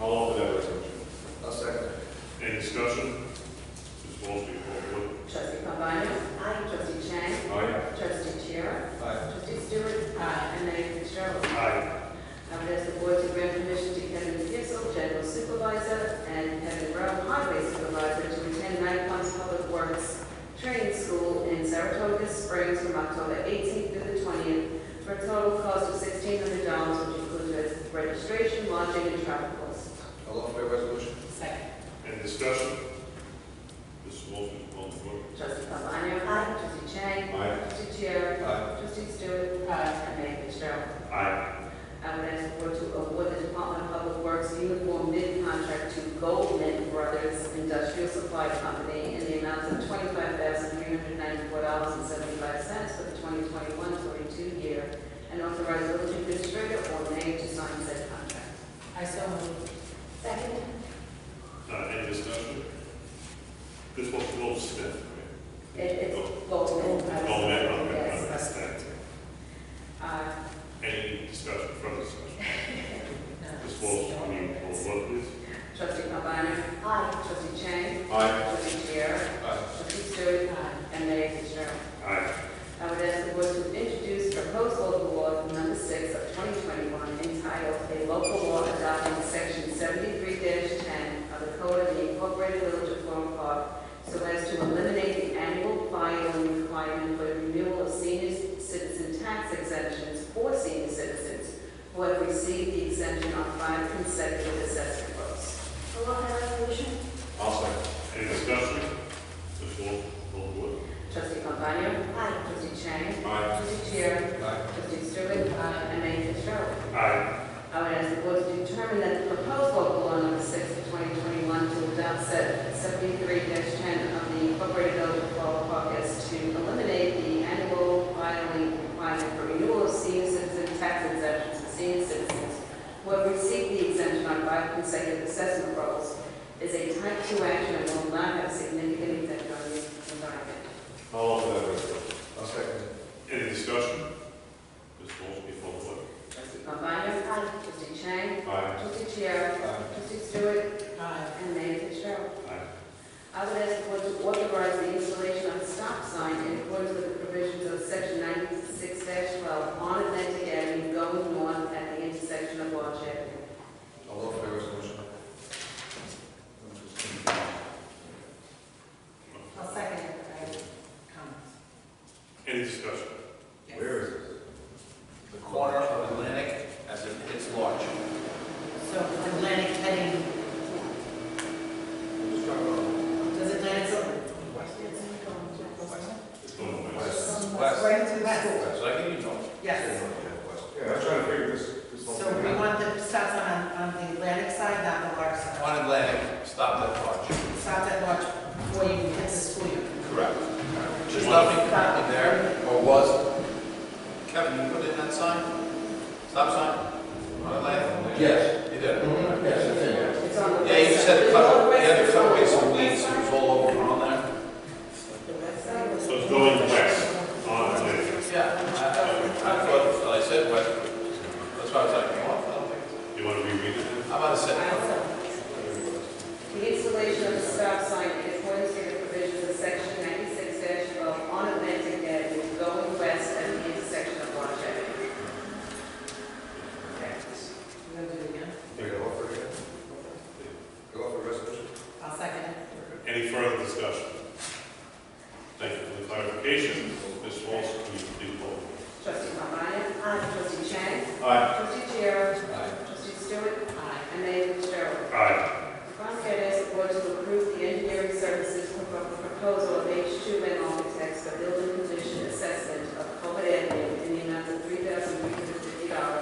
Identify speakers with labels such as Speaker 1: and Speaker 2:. Speaker 1: I'll offer that resolution.
Speaker 2: I'll second it.
Speaker 1: Any discussion? Ms. Walsh, do you call the board?
Speaker 3: Trustee Pambana? Aye. Trustee Chang?
Speaker 1: Aye.
Speaker 3: Trustee Chair?
Speaker 2: Aye.
Speaker 3: Trustee Stewart? Aye. And Mayor Fitzgerald.
Speaker 1: Aye.
Speaker 3: I would ask the board to grant permission to Kevin Gissel, General Supervisor, and Kevin Rowe, Highway Supervisor, to attend Nine Points Public Works Training School in Saratoga Springs from October 18th through the 20th for a total cost of $1,600, which includes registration, lodging, and travel costs.
Speaker 2: I'll offer that resolution.
Speaker 3: Second.
Speaker 1: Any discussion? Ms. Walsh, do you call the board?
Speaker 3: Trustee Pambana? Aye. Trustee Chang?
Speaker 1: Aye.
Speaker 3: Trustee Chair?
Speaker 2: Aye.
Speaker 3: Trustee Stewart? Aye. And Mayor Fitzgerald.
Speaker 1: Aye.
Speaker 3: I would ask the board to award the Department of Public Works uniform bid contract to Goldman Brothers Industrial Supply Company in the amount of twenty-five thousand three hundred ninety-four dollars and seventy-five cents for the 2021-22 year, and authorize village administrator or mayor to sign said contract. I so move. Second.
Speaker 1: Uh, any discussion? This was Will Smith,
Speaker 3: It,
Speaker 1: right?
Speaker 3: it's
Speaker 1: Oh,
Speaker 3: Goldman.
Speaker 1: Oh, that, okay,
Speaker 3: Yes.
Speaker 1: okay.
Speaker 3: Uh,
Speaker 1: Any discussion, further discussion? Ms. Walsh, do you call the board, please?
Speaker 3: Trustee Pambana? Aye. Trustee Chang?
Speaker 1: Aye.
Speaker 3: Trustee Chair?
Speaker 2: Aye.
Speaker 3: Trustee Stewart? And Mayor Fitzgerald.
Speaker 1: Aye.
Speaker 3: I would ask the board to introduce proposed local law number six of 2021 entitled "A Local Law Adopting Section 73-10 of the Code of the Incorporated Village of Flore Park so as to eliminate the annual filing requirement for the renewal of senior citizen tax exemptions for senior citizens who have received the exemption on five consecutive assessment rolls."
Speaker 4: Along that resolution?
Speaker 1: I'll second. Any discussion? Ms. Walsh, call the board.
Speaker 3: Trustee Pambana?
Speaker 4: Aye.
Speaker 3: Trustee Chang?
Speaker 1: Aye.
Speaker 3: Trustee Chair?
Speaker 2: Aye.
Speaker 3: Trustee Stewart? uh, And Mayor Fitzgerald.
Speaker 1: Aye.
Speaker 3: I would ask the board to determine that the proposed local law number six of 2021 to adopt set 73-10 of the Incorporated Village of Flore Park as to eliminate the annual filing requirement for renewal of senior citizen tax exemptions for senior citizens who have received the exemption on five consecutive assessment rolls is a type 2 action and will not have significant effect on the environment.
Speaker 1: I'll offer that resolution.
Speaker 2: I'll second it.
Speaker 1: Any discussion? Ms. Walsh, do you call the board?
Speaker 3: Trustee Pambana? Aye. Trustee Chang?
Speaker 1: Aye.
Speaker 3: Trustee Chiara?
Speaker 2: Aye.
Speaker 3: Trustee Stewart? Aye. uh, And Mayor Fitzgerald?
Speaker 1: Aye.
Speaker 3: I would ask the board to authorize the installation of a stop sign in accordance with the provisions of section ninety-six twelve on Atlantic Avenue going north at the intersection of Watch Avenue.
Speaker 2: I'll offer that resolution.
Speaker 4: I'll second it. I have comments.
Speaker 1: Any discussion?
Speaker 2: Where is it?
Speaker 5: the corner of Atlantic as it hits launch.
Speaker 4: So Atlantic heading,
Speaker 2: Just talk about
Speaker 4: does Atlantic go?
Speaker 1: It's going on.
Speaker 2: west.
Speaker 4: Right into the school.
Speaker 5: So I can, you know,
Speaker 4: Yes.
Speaker 2: Yeah, I'm trying to figure this, this whole
Speaker 4: So
Speaker 2: thing
Speaker 4: we
Speaker 2: out.
Speaker 4: want the stop sign on, on the Atlantic side, not the Lark side.
Speaker 5: on Atlantic, stop that launch.
Speaker 4: Stop that watch before you hit the school. year.
Speaker 5: Correct. There's nothing currently there, or was. Kevin, you put in that sign? Stop sign? On Atlantic?
Speaker 6: Yes.
Speaker 5: You did?
Speaker 2: Mm-hmm.
Speaker 6: Yes, it's in there.
Speaker 3: It's on the.
Speaker 5: Yeah, you
Speaker 3: west
Speaker 5: said
Speaker 3: side.
Speaker 5: cut,
Speaker 3: The
Speaker 5: you had to
Speaker 3: west
Speaker 5: cut away
Speaker 3: side.
Speaker 5: some weeds, it was all over on there.
Speaker 3: The west side was-
Speaker 1: So it's going west on Atlantic.
Speaker 5: Yeah. I- I I thought, well, I said, well, that's why I was like, come on, I don't think. it's-
Speaker 1: You want to reread it?
Speaker 5: How about a
Speaker 3: I
Speaker 5: set?
Speaker 3: The installation of a stop sign in accordance with the provisions of section ninety-six twelve on Atlantic Avenue going west at the intersection of Watch Avenue.
Speaker 4: You gonna do it again?
Speaker 2: Yeah, I'll offer it again. I'll offer the resolution.
Speaker 4: I'll second it.
Speaker 1: Any further discussion? Thank you for the clarification. Ms. Walsh, will you please call the
Speaker 3: Trustee Pambana? Aye. Trustee Chang?
Speaker 1: board? Aye.
Speaker 3: Trustee Chair?
Speaker 2: Aye.
Speaker 3: Trustee Stewart?
Speaker 4: Aye.
Speaker 3: And Mayor Fitzgerald.
Speaker 1: Aye.
Speaker 3: Finally, I'd ask the board to approve the engineering services propo- proposal of H two and architects for building condition assessment of Colbert Avenue in the amount of three thousand three hundred fifty dollars
Speaker 1: uh,